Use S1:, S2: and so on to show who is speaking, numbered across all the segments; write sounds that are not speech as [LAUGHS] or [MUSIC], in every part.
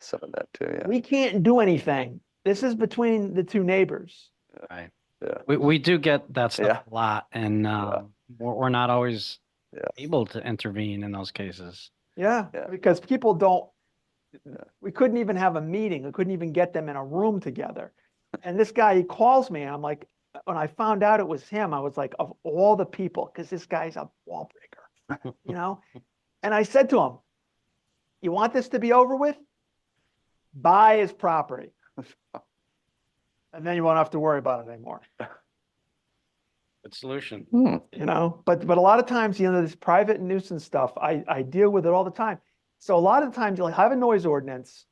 S1: some of that too, yeah.
S2: We can't do anything. This is between the two neighbors.
S3: Right.
S1: Yeah.
S3: We, we do get that
S1: Yeah.
S3: stuff a lot and, um, we're, we're not always
S1: Yeah.
S3: able to intervene in those cases.
S2: Yeah,
S1: Yeah.
S2: because people don't,
S1: Yeah.
S2: we couldn't even have a meeting. We couldn't even get them in a room together. And this guy, he calls me and I'm like, when I found out it was him, I was like, of all the people, because this guy's a wall breaker, you [LAUGHS] know? And I said to him, you want this to be over with? Buy his [LAUGHS] property. And then you won't have to worry about it anymore.
S3: Good solution.
S1: Hmm,
S2: you know but but a lot of times you know this private nuisance stuff i i deal with it all the time so a lot of times you'll have a noise ordinance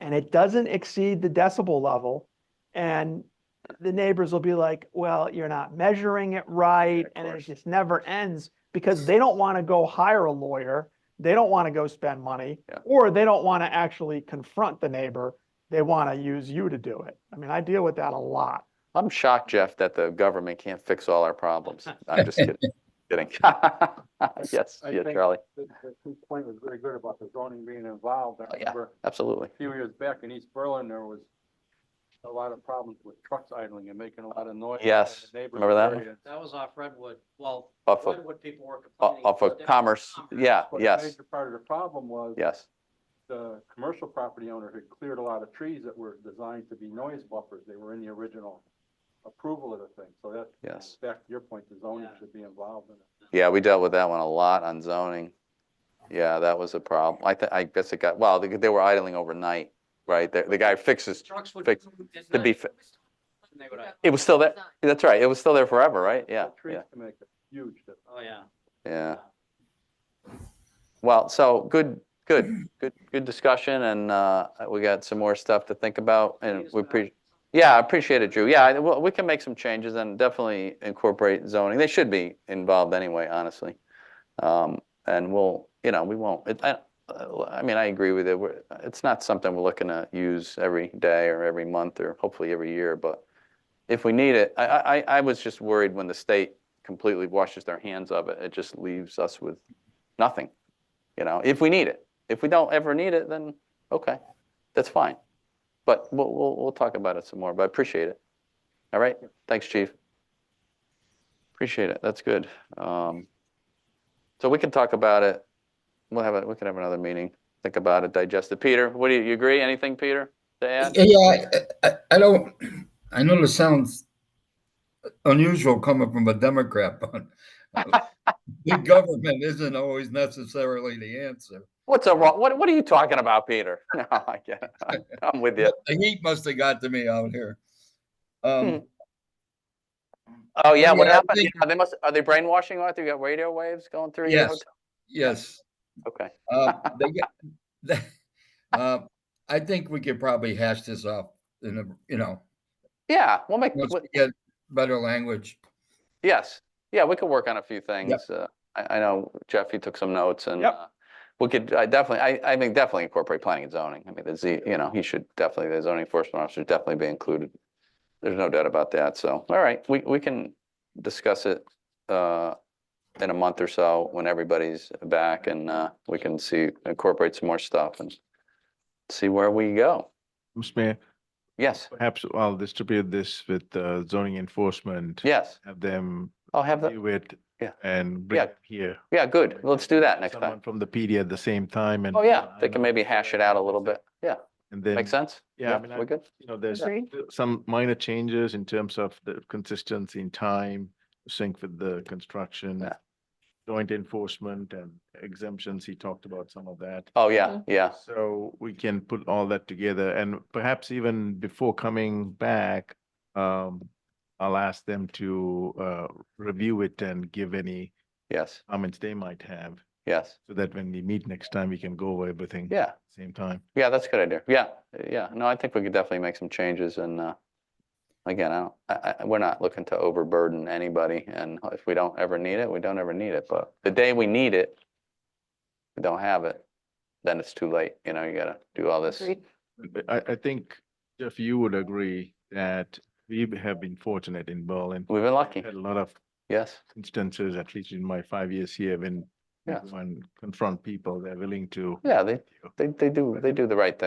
S2: and it doesn't exceed the decibel level and the neighbors will be like well you're not measuring it right
S1: of
S2: and it
S1: course.
S2: just never ends because they don't want to go hire a lawyer they don't want to go spend money
S1: Yeah.
S2: or they don't want to actually confront the neighbor they want to use you to do it i mean i deal with that a lot
S1: I'm shocked, Jeff, that the government can't fix all our problems. I'm just kidding, kidding. [LAUGHS] Yes,
S4: I
S1: yeah,
S4: think-
S1: Charlie,
S4: The the point was very good about the zoning being involved. I
S1: Oh, yeah.
S4: remember
S1: absolutely.
S4: a few years back in East Berlin, there was a lot of problems with trucks idling and making a lot of noise. in
S1: Yes,
S4: the
S1: remember that one?
S4: neighborhood
S3: That was off Redwood. Well,
S1: Off of,
S3: people were
S1: o- off of commerce, yeah,
S4: But a
S1: yes,
S4: Major part of the problem was
S1: yes,
S4: the commercial property owner had cleared a lot of trees that were designed to be noise buffers. They were in the original approval of the thing. So that,
S1: yes.
S4: back to your point, the zoning
S3: Yeah.
S4: should be involved in it.
S1: Yeah, we dealt with that one a lot on zoning. Yeah, that was a problem. I thi- I guess it got, well, they, they were idling overnight, right? The, the guy fixes,
S3: Trucks would.
S1: Fix- to be, fi-
S3: They would,
S1: it was still there, that's right, it was still there forever, right? Yeah,
S4: The
S1: yeah,
S4: Trees can make a huge difference.
S3: oh, yeah.
S1: yeah. Well, so good, good, good, good discussion and uh, we got some more stuff to think about and we appreciate. Yeah, I appreciate it, Drew. Yeah, I- well, we can make some changes and definitely incorporate zoning. They should be involved anyway, honestly. Um, And we'll, you know, we won't, it- I I mean, I agree with it. We're- It's not something we're looking to use every day or every month or hopefully every year, but if we need it, I, I, I- I was just worried when the state completely washes their hands of it, it just leaves us with nothing, you know, if we need it. If we don't ever need it, then, okay, that's fine. But we'll, we'll, we'll talk about it some more, but I appreciate it. All right, thanks, chief. Appreciate it, that's good. Um, So we can talk about it, we'll have, a we can have another meeting, think about it, digest it. Peter, what do you, you agree, anything, Peter, to add?
S5: Yeah, I, I, I don't, I know this sounds unusual coming from a Democrat, but big government isn't always necessarily the answer.
S1: What's a wrong, what, what are you talking about, Peter? [LAUGHS] No, I get it, [LAUGHS] I'm with
S5: [LAUGHS]
S1: you.
S5: The heat must have got to me out here. Um,
S1: Oh, yeah, what
S5: Yeah, I
S1: happened?
S5: think-
S1: Yeah, They must, are they brainwashing Arthur? You got radio waves going through your
S5: Yes.
S1: hotel?
S5: yes,
S1: Okay,
S5: uh, they get, uh, I think we could probably hash this off in a, you know,
S1: yeah, we'll make,
S5: once
S1: we'll-
S5: we get better language.
S1: Yes, yeah, we could work on a few things. Uh, I, I know Jeff, you took some notes and
S2: Yep.
S1: uh, we could, I definitely, I, I think definitely incorporate planning and zoning. I mean, the Z, you know, he should definitely, the zoning enforcement officer should definitely be included. There's no doubt about that, so, all right, we, we can discuss it uh, in a month or so when everybody's back and uh, we can see, incorporate some more stuff and see where we go.
S6: Mr. Mayor,
S1: Yes,
S6: perhaps I'll distribute this with uh, zoning enforcement.
S1: yes,
S6: Have them
S1: I'll have the,
S6: view it
S1: yeah.
S6: and bring
S1: Yeah.
S6: it here.
S1: yeah, good, let's do that next
S6: Someone
S1: time.
S6: From the PD at the same time and.
S1: Oh, yeah,
S6: I
S1: they can
S6: know
S1: maybe
S6: it's,
S1: hash it
S6: uh,
S1: out a little bit,
S6: it's
S1: yeah.
S6: And then.
S1: Make sense?
S6: Yeah, I mean, I-
S1: We're good?
S6: you know, there's
S2: Agree.
S6: th- some minor changes in terms of the consistency in time, sync with the construction,
S1: Yeah.
S6: joint enforcement and exemptions. He talked about some of that.
S1: Oh, yeah, yeah,
S6: So we can put all that together and perhaps even before coming back, um, I'll ask them to, uh, review it and give any
S1: yes,
S6: comments they might have
S1: yes,
S6: so that when we meet next time, we can go over everything.
S1: yeah,
S6: at the Same time.
S1: yeah, that's a good idea, yeah, yeah, no, I think we could definitely make some changes and, uh, again, I don't, I, I, we're not looking to overburden anybody, and if we don't ever need it, we don't ever need it, but the day we need it, we don't have it, then it's too late, you know, you gotta do all this.
S6: But I, I think, Jeff, you would agree that we have been fortunate in Berlin.
S1: We've been lucky,
S6: Had a lot of
S1: yes,
S6: instances, at least in my five years here, when
S1: Yeah.
S6: when confront people, they're willing to.
S1: yeah, they, they, they do, they do the right thing.